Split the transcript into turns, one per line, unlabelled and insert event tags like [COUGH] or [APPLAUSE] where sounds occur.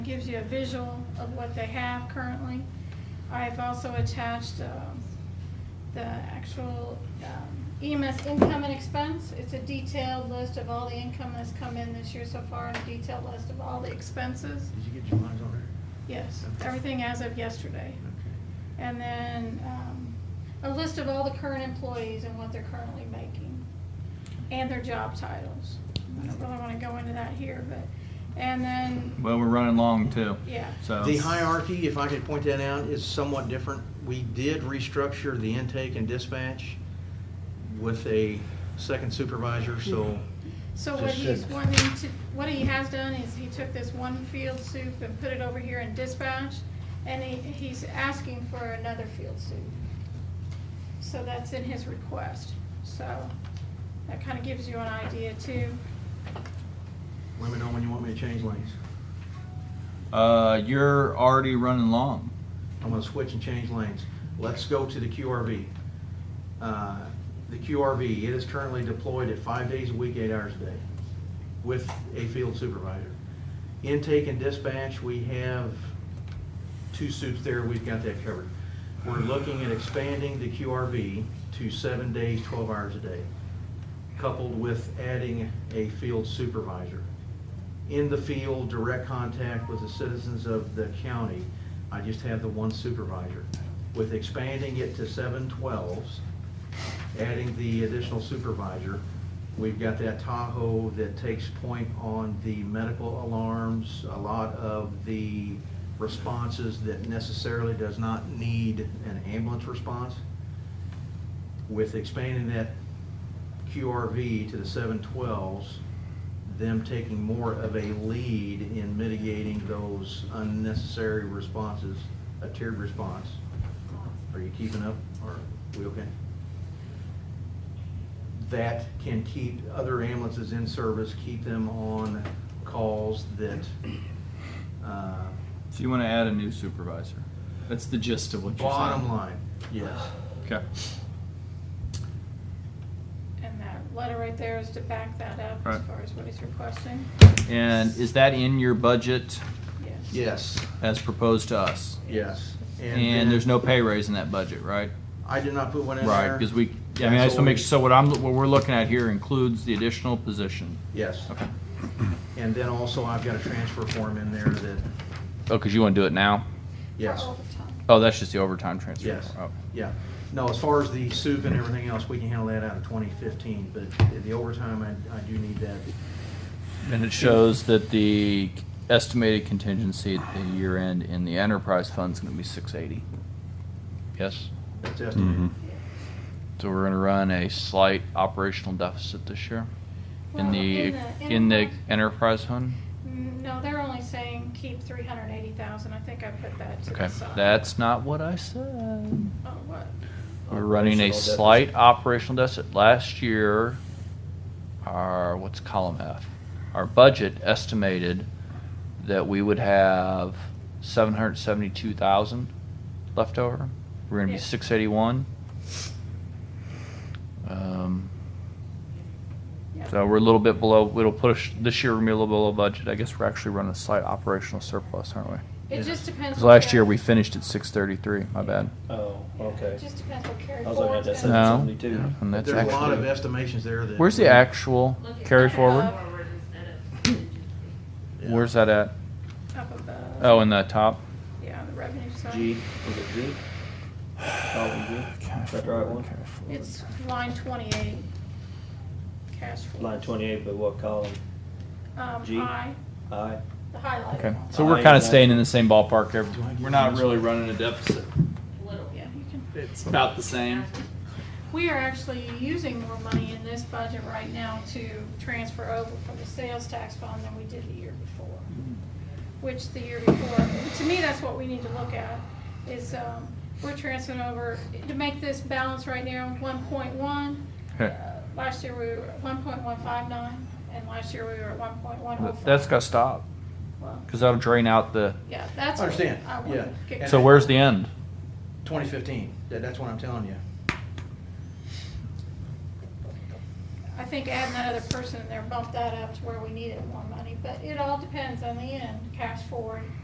gives you a visual of what they have currently. I've also attached um, the actual um, EMS income and expense. It's a detailed list of all the income that's come in this year so far, and a detailed list of all the expenses.
Did you get your lines on there?
Yes,
Okay.
everything as of yesterday.
Okay.
And then um, a list of all the current employees and what they're currently making, and their job titles. I don't really want to go into that here, but, and then,
Well, we're running long too.
yeah.
So
The hierarchy, if I could point that out, is somewhat different. We did restructure the intake and dispatch with a second supervisor, so
So what
Just
he's
said-
wanting to, what he has done is he took this one field soup and put it over here in dispatch, and he, he's asking for another field soup. So that's in his request, so that kind of gives you an idea too.
let me know when you want me to change lanes.
uh, you're already running long.
I'm gonna switch and change lanes. Let's go to the QRV. Uh, The QRV, it is currently deployed at five days a week, eight hours a day, with a field supervisor. Intake and dispatch, we have two suits there, we've got that covered. We're looking at expanding the QRV to seven days, twelve hours a day, coupled with adding a field supervisor in the field, direct contact with the citizens of the county. I just have the one supervisor. With expanding it to seven twelves, adding the additional supervisor, we've got that Tahoe that takes point on the medical alarms, a lot of the responses that necessarily does not need an ambulance response. With expanding that QRV to the seven twelves, them taking more of a lead in mitigating those unnecessary responses, a tiered response. Are you keeping up, or we okay? That can keep other ambulances in service, keep them on calls that, uh,
So you want to add a new supervisor. That's the gist of what you're
bottom
saying.
line, yes.
Okay.
And that letter right there is to back that up as
Right.
far as what he's requesting,
And is that in your budget
yes.
Yes,
as proposed to us?
yes.
And,
then-
there's no pay raise in that budget, right?
I did not put one in there.
Right, because we. I mean, I just want to make sure. So what I'm what we're looking at here includes the additional position.
Yes,
Okay.
and then also I've got a transfer form in there that,
Oh, because you want to do it now?
yes.
For overtime.
Oh, that's just the overtime transfer.
Yes,
Oh.
yeah. No, as far as the soup and everything else, we can handle that out of 2015, but the overtime, I, I do need that.
And it shows that the estimated contingency at the year end in the enterprise fund is going to be 680. Yes?
That's estimated.
So we're going to run a slight operational deficit this year
Well,
in the in the enterprise fund.
Mm, No, they're only saying keep three hundred and eighty thousand, I think I put that to
Okay,
the side.
that's not what I said.
Oh, what?
We're running a
Operational
slight operational deficit. Last year, our, what's column F? Our budget estimated that we would have seven hundred seventy-two thousand left over. We're gonna be
Yeah.
six eighty-one. Um,
Yeah.
so we're a little bit below, it'll push, this year we're gonna be a little below budget. I guess we're actually running a slight operational surplus, aren't we?
It just depends.
Cause
what
last year
Gary-
we finished at six thirty-three, my bad.
Oh,
Yeah,
okay.
It just depends what carry
I was looking at
forward's
that
gonna-
No.
772.
And that's
There's a lot of
actually,
estimations there that.
where's the actual
Look at
carry
that.
forward?
instead of contingency.
Yeah.
Where's that at?
Up above.
Oh, in the top.
Yeah, the revenue side.
G, was it G? Column
[SIGHS]
G? Is that the right one?
It's line twenty-eight. Cash flow.
Line twenty-eight, but what column?
Um,
G.
I,
I.
the highlighted.
Okay,
one.
so we're kind of staying in the same ballpark. every- We're not really running a deficit.
Little.
Yeah, you can.
It's about the same.
We are actually using more money in this budget right now to transfer over from the sales tax fund than we did the year before.
Mm-hmm.
Which the year before, to me, that's what we need to look at, is, um, we're transferring over, to make this balance right now, one point one. Uh,
Okay.
Last year we were at one point one five nine, and last year we were at one point one oh five.
That's gotta stop, cause that'll drain out the,
Yeah, that's. what
Understand,
I wanna
yeah.
get-
so where's the end?
2015, that, that's what I'm telling you.
I think adding that other person in there bumped that up to where we needed more money, but it all depends on the end, cash forward.